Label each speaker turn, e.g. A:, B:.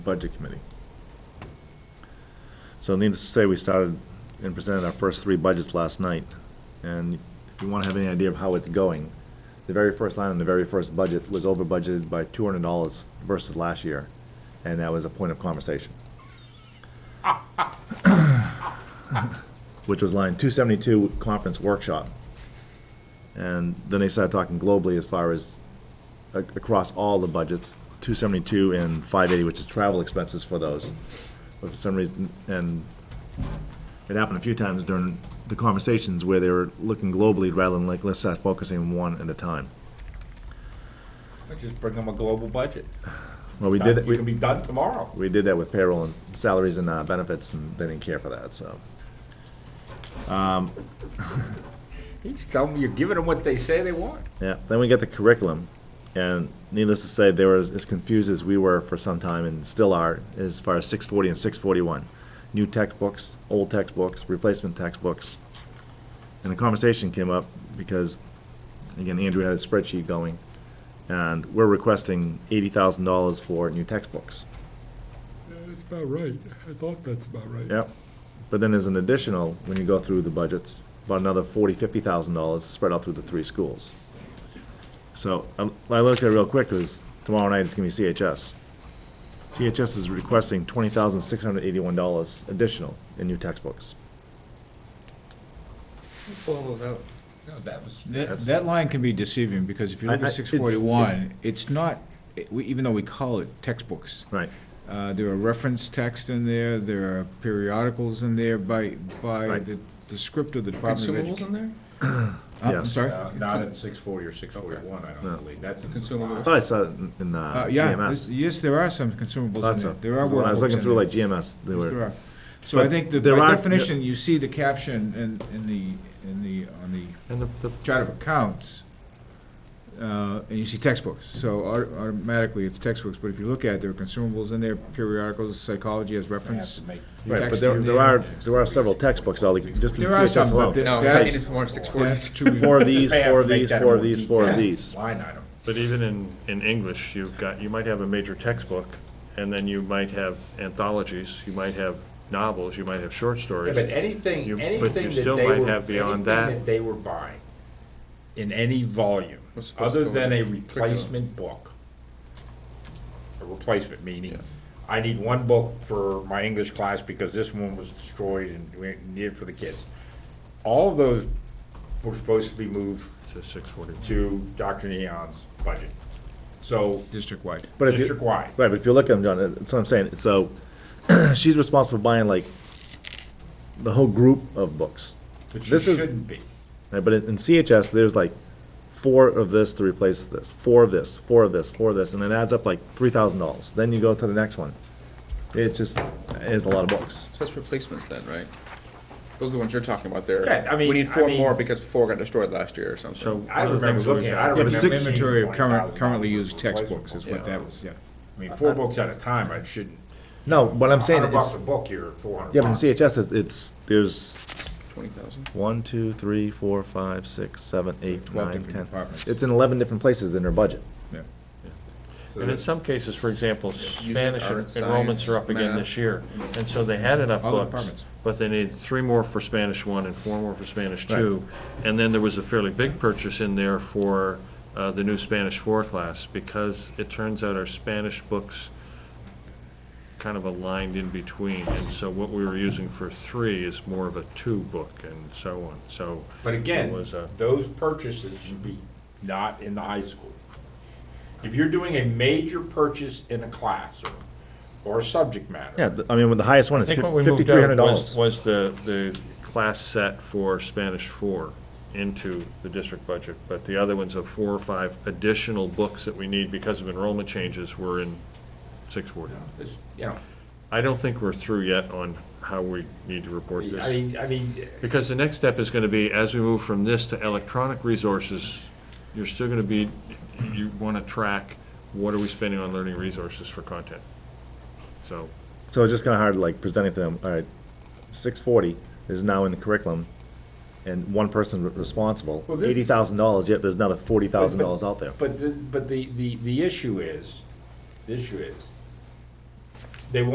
A: Budget Committee. So needless to say, we started and presented our first three budgets last night. And if you want to have any idea of how it's going, the very first line in the very first budget was over budgeted by two hundred dollars versus last year. And that was a point of conversation. Which was line two seventy-two, conference workshop. And then they started talking globally as far as a- across all the budgets, 272 and 580, which is travel expenses for those. But for some reason, and it happened a few times during the conversations where they were looking globally rather than like, let's start focusing one at a time.
B: I just bring them a global budget.
A: Well, we did,
B: Done- You
A: we
B: can be done tomorrow.
A: we did that with payroll and salaries and uh, benefits, and they didn't care for that, so.
B: He's telling me you're giving them what they say they want.
A: Yeah, then we get the curriculum, and needless to say, they were as as confused as we were for some time and still are as far as six forty and six forty-one. New textbooks, old textbooks, replacement textbooks. And the conversation came up because, again, Andrew had a spreadsheet going, and we're requesting eighty thousand dollars for new textbooks.
C: Yeah, That's about right. I thought that's about right.
A: Yep. But then there's an additional, when you go through the budgets, about another forty, fifty thousand dollars spread out through the three schools. So I I looked at it real quick, because tomorrow night it's gonna be CHS. CHS is requesting twenty thousand, six hundred eighty-one dollars additional in new textbooks.
B: Well, no, no, that was,
D: That,
A: That's-
D: that line can be deceiving, because if you look
A: I- I-
D: at
A: it's-
D: six forty-one, it's not, it- we- even though we call it textbooks,
A: Right.
D: uh, there are reference texts in there, there are periodicals in there by, by
A: Right.
D: the, the script of the Department of
E: Consumables
D: Education.
E: in there?
D: I'm
A: Yes. Uh,
D: sorry?
B: uh, not at six forty or six forty-one, I don't believe, that's in
A: I
E: Consumables.
A: thought I saw it in- in uh,
D: Uh, yeah, this-
A: GMS.
D: yes, there are some consumables in
A: Lots
D: there,
A: of,
D: there are
A: when I was looking
D: workbooks
A: through
D: in
A: like
D: there.
A: GMS, they
D: Yes, there
A: were,
D: are. So I
A: But
D: think that
A: there
D: by
A: are-
D: definition, you see the caption in, in the, in the, on the
E: And the, the,
D: chart of accounts, uh, and you see textbooks, so au- automatically it's textbooks, but if you look at it, there are consumables in there, periodicals, psychology as reference.
A: right, but
D: text
A: there
D: in
A: there are, there are several textbooks, all, like, just in
D: There are
A: CHS
D: some, but
A: alone.
D: the-
E: no, I think it's more six
D: that's
E: forties.
D: to be-
A: Four of these, four of these, four of these, four of these.
B: Line item.
F: But even in, in English, you've got, you might have a major textbook, and then you might have anthologies, you might have novels, you might have short
B: Yeah,
F: stories.
B: But anything,
F: You- but
B: anything that they
F: you
B: were.
F: still might have beyond
B: anything
F: that.
B: they were buying, in any volume,
E: Was supposed to
B: other
E: go
B: than
E: in
B: a
E: the curriculum.
B: replacement book. A replacement, meaning, I need one book for my English class because this one was destroyed and we needed for the kids. All of those were supposed to be moved
F: To six forty.
B: to Dr. Neon's budget. So,
D: District-wide.
A: But if you-
B: District-wide.
A: Right, but if you look at them, John, that's what I'm saying, so, she's responsible for buying like the whole group of books.
B: which you
A: This is-
B: shouldn't be.
A: Right, But in in CHS, there's like four of this to replace this, four of this, four of this, four of this, and it adds up like three thousand dollars. Then you go to the next one. It just, is a lot of books.
E: So that's replacements then, right? Those are the ones you're talking about there.
B: Yeah, I mean-
E: We need
B: I
E: four
B: mean-
E: more because four got destroyed last year or something.
D: So.
B: I
D: one of
B: remember
D: the things was
B: looking at it. I
D: that
B: remember
D: Six
B: seeing
D: inventory of current,
B: $20,000
D: currently used
B: replacement
D: textbooks is
B: books.
D: what that was, yeah.
B: I mean, four books at a time, I shouldn't.
A: No, what I'm saying
B: Hundred bucks
A: is,
B: a book, you're four hundred
A: yeah, but in
B: bucks.
A: CHS, it's- it's, there's
E: Twenty thousand.
A: one, two, three, four, five, six, seven, eight,
D: Twelve
A: nine,
D: different
A: ten.
D: departments.
A: It's in eleven different places in her budget.
D: Yeah.
F: And in some cases, for example, Spanish
E: art,
F: enrollments are up
E: science,
F: again
E: math.
F: this year, and so they had enough
D: All the
F: books,
D: departments.
F: but they needed three more for Spanish one and four more for Spanish two. And then there was a fairly big purchase in there for uh, the new Spanish four class, because it turns out our Spanish books kind of aligned in between, and so what we were using for three is more of a two book and so on, so.
B: But
F: it
B: again,
F: was uh, a-
B: those purchases should be not in the high school. If you're doing a major purchase in a class or, or a subject matter.
A: Yeah, th- I mean, with the highest one
F: I
A: is
F: think what we
A: fifty-three
F: moved
A: hundred
F: out was,
A: dollars.
F: was the, the class set for Spanish four into the district budget, but the other ones of four or five additional books that we need because of enrollment changes were in six forty.
B: This- You know,
F: I don't think we're through yet on how we need to report
B: I
F: this,
B: mean, I mean,
F: because the next step is gonna be, as we move from this to electronic resources, you're still gonna be, you wanna track, what are we spending on learning resources for content? So,
A: So it's just kind of hard, like, presenting to them, all right, six forty is now in the curriculum, and one person re- responsible,
B: Well, this-
A: eighty thousand dollars, yet there's another forty thousand dollars out there.
B: But, the- but the, the, the issue is, the issue is,